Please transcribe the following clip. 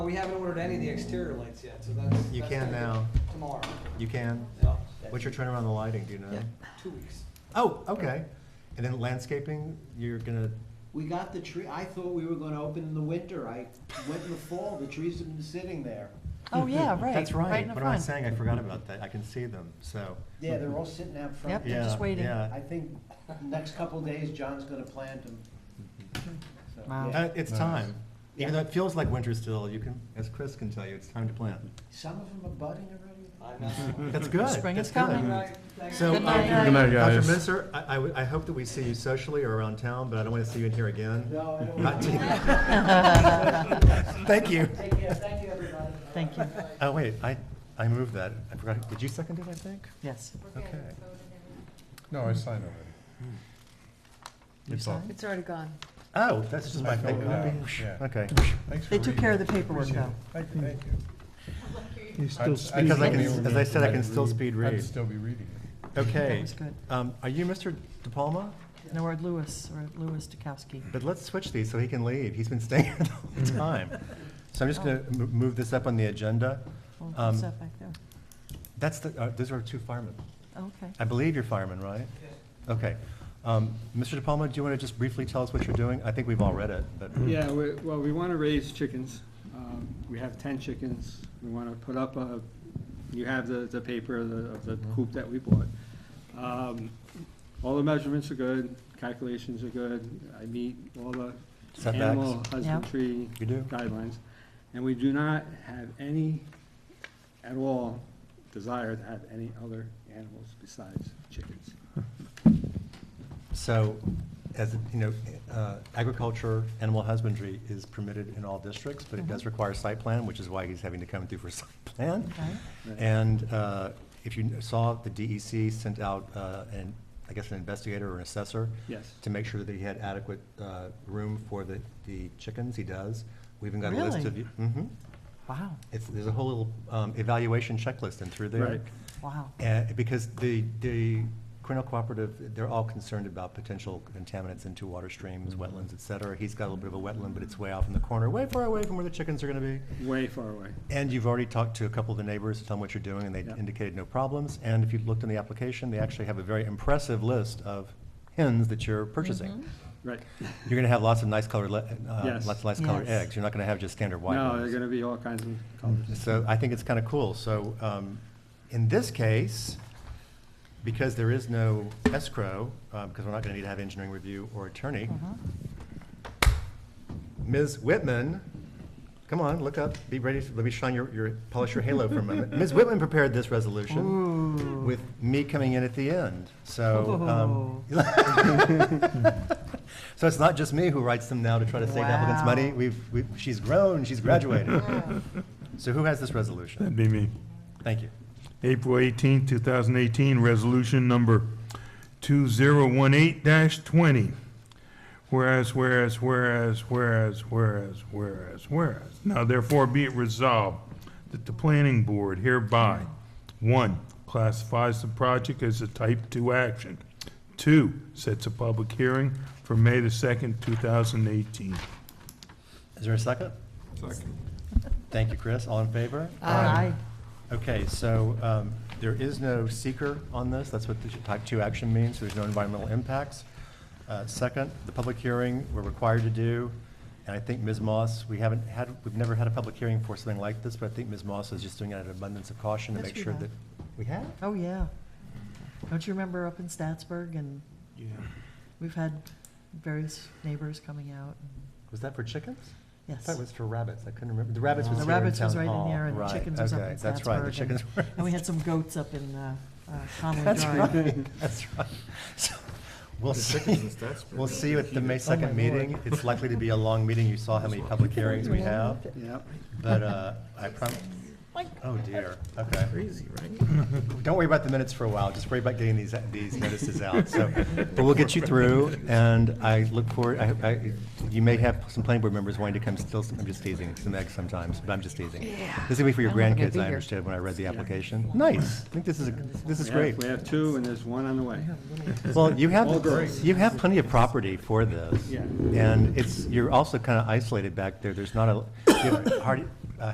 we haven't ordered any of the exterior lights yet, so that's. You that's gonna can be now. Tomorrow. You can. Yeah, What's your turnaround on the lighting, do you know? Yeah. Two weeks. Oh, okay. And then landscaping, you're gonna, We got the tree, I thought we were gonna open in the winter, I went in the fall, the trees have been sitting there. Oh, yeah, right. Mm-hmm. that's right. in the What am I front. saying? I forgot about that. I can see them, so. Yeah, they're all sitting out front. Yep, they're just Yeah, waiting. yeah. I think next couple of days, John's gonna plant them. So, Wow. yeah. Uh, It's time. Even though Yeah. it feels like winter still, you can, as Chris can tell you, it's time to plant. Some of them are budding already. I know. That's good. Spring That's is coming. good. Right, thank So, you. Good night. uh, Good night, Dr. Minister, I, I would- I hope that we see you socially or around town, but I don't want to see you in here again. No, I don't. Not want to- Thank you. Take care, thank you, everybody. Thank you. Oh, wait, I, I moved that. I forgot. Did you second it, I think? Yes. Okay. No, I signed already. You It's all- signed? It's already gone. Oh, that's just my I filled fake it copy. out, yeah. Okay. Thanks for They took reading. care of the paperwork, Appreciate though. it. Thank you, thank you. He's I'd- still I'd Because speaking. I still can- be as I said, I reading. can still speed read. I'd still be reading it. Okay. was good. Um, Are you Mr. De Palma? No, we're at Lewis, or at Lewis Dukowski. But let's switch these so he can leave. He's been staying here the whole Mm-hmm. time. So I'm just going to move this up on the agenda. Well, Um, what's that back there? That's the, uh, those are two firemen. Okay. I believe you're firemen, right? Okay. Um, Mr. De Palma, do you want to just briefly tell us what you're doing? I think we've all read it, but. Yeah, we- well, we want to raise chickens. Um, We have 10 chickens. We want to put up a, you have the, the paper of the- of the Hmm. coop that we bought. Um, All the measurements are good, calculations are good. I meet all the Setbacks. animal husbandry You do? guidelines. And we do not have any, at all, desire to have any other animals besides chickens. So, as, you know, uh, agriculture, animal husbandry is permitted in all districts, but it does Mhm. require site plan, which is why he's having to come through for site plan. Okay. Right. And uh, if you saw, the DEC sent out, uh, an, I guess, an investigator or an assessor Yes. to make sure that he had adequate uh, room for the, the chickens, he does. We even got a list of. Really? Mhm. Wow, It's, there's a whole little um, evaluation checklist and through there. Right. wow. Uh, Because the, the Cornell Cooperative, they're all concerned about potential contaminants into water streams, Mm-hmm. wetlands, et cetera. He's got a little bit of a wetland, but it's way off in the corner, way far away from where the chickens are gonna be. Way far away. And you've already talked to a couple of the neighbors to tell them what you're doing, and they Yeah. indicated no problems. And if you looked in the application, they actually have a very impressive list of hens that you're purchasing. Right. You're gonna have lots of nice colored, le- uh, Yes. lots of nice colored Yes. eggs. You're not gonna have just standard white ones. No, they're gonna be all kinds of colors. So I think it's kind of cool. So um, in this case, because there is no escrow, um, because we're not going to need to have engineering review or attorney, Uh-huh. Ms. Whitman, come on, look up, be ready, to- let me shine your, your, polish your halo for a moment. Ms. Whitman prepared this resolution with me coming in at the end, so. um, So it's not just me who writes them now to try to save applicants' money. Wow. We've, we've- she's grown, she's graduated. So who has this resolution? That'd be me. Thank you. April 18, 2018, resolution number 2018-20. Whereas, whereas, whereas, whereas, whereas, whereas, whereas. Now therefore be it resolved that the planning board hereby, one, classifies the project as a type 2 action. Two, sets a public hearing for May the 2nd, 2018. Is there a second? Second. Thank you, Chris. All in favor? um, Aye. Okay, so um, there is no seeker on this. That's what the type 2 action means. There's no environmental impacts. Uh, Second, the public hearing we're required to do, and I think Ms. Moss, we haven't had, we've never had a public hearing for something like this, but I think Ms. Moss is just doing it out of abundance of caution to Yes, make we sure have. that. We have? Oh, yeah. Don't you remember up in Statsburg, and we've had various neighbors coming out? and- Was that for chickens? I Yes. thought it was for rabbits. I couldn't remember. The rabbits was The here in rabbits was town right in hall. there, and the Right, chickens was up okay, in That's right, the Statsburg, and- chickens were. And we had some goats up in uh, uh, Oh Conway Drive. That's right, that's right. So, We'll The see, chickens and stats. we'll see you at the May Oh, my 2nd meeting. Lord. It's likely to be a long meeting. You saw how many public hearings we have, Yep. but uh, I promise, oh dear, okay. Crazy, right? Don't worry about the minutes for a while, just worry about getting these, these notices out, so. But we'll get you through, and I look forward, I, I, you may have some planning board members wanting to come still, I'm just teasing, some eggs sometimes, but I'm just teasing. This will be for your I'm not gonna grandkids, be I here. understood when I read the application. Nice, I think this is, a this is We have- great. We have two, and there's one on the way. Well, you All have, girls. you have plenty of property for this. Yeah. And it's, you're also kind of isolated back there. There's not a, you have hard- uh,